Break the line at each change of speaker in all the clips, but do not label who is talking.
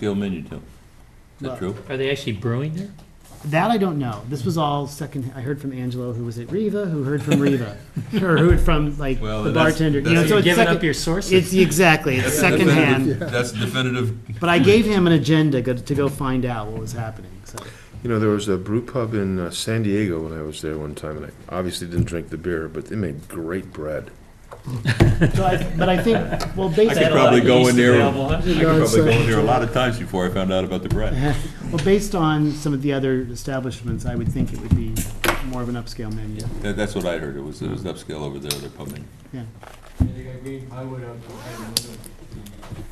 Gail Minutino. Is that true?
Are they actually brewing there?
That I don't know. This was all second. I heard from Angelo, who was at Riva, who heard from Riva, or who heard from like
Well,
the
that's-
bartender.
that's-
you know, so
You're
it's
giving
second,
up your sources.
It's exactly it's
That's definitive-
secondhand.
That's definitive.
But I gave him an agenda go, to go find out what was happening. So
You know, there was a brew pub in uh, San Diego when I was there one time, and I obviously didn't drink the beer, but they made great bread.
So I- but I think, well,
I could
based, uh,
probably go in there, I
Available, huh?
could probably go in there a lot of times before I found out about the bread.
well, based on some of the other establishments, I would think it would be more of an upscale menu.
That- That's what I heard, it was, it was upscale over there, they're pumping.
Yeah.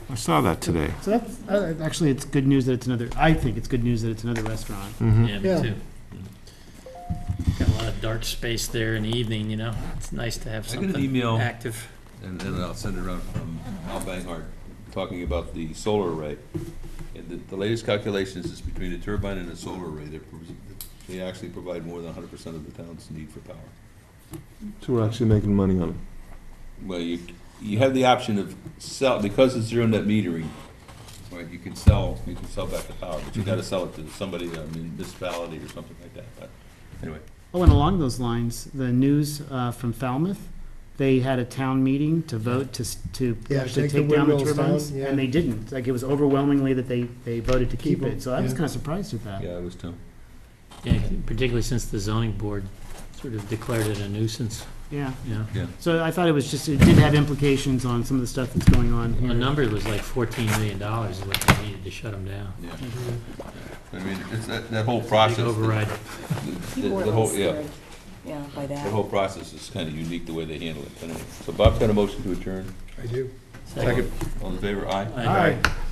I saw that today.
So that's, uh, actually, it's good news that it's another, I think it's good news that it's another restaurant.
Yeah, me too. Got a lot of dark space there in the evening, you know? It's nice to have
I got an
something
email,
active.
and and I'll send it around from Al Banghart, talking about the solar array. And the, the latest calculations is between a turbine and a solar array, they're, they actually provide more than hundred percent of the town's need for power.
So we're actually making money on it.
Well, you, you have the option of sell, because it's zero net metering, right, you can sell, you can sell back the power, but you gotta sell it to somebody, a municipality or something like that, but, anyway.
Oh, and along those lines, the news uh, from Falmouth, they had a town meeting to vote to, s- to
Yeah,
actually
take the
take down the
windmills down,
turbines,
yeah.
and they didn't. Like, it was overwhelmingly that they, they voted to keep
Keep 'em,
it, so I was
yeah.
kind of surprised at that.
I was too.
Yeah, particularly since the zoning board sort of declared it a nuisance,
Yeah,
you know?
so I thought it was just, it did have implications on some of the stuff that's going on
The
here.
number was like fourteen million dollars is what they needed to shut them down.
Yeah, I mean, it's that, that whole
Big
process, the,
Override.
the-
People were a
the
little
whole, yeah,
scared, yeah, by
the
that.
whole process is kinda unique the way they handle it, anyway. So Bob's got a motion to adjourn,
I do.
Second.
all in favor, aye?
Aye.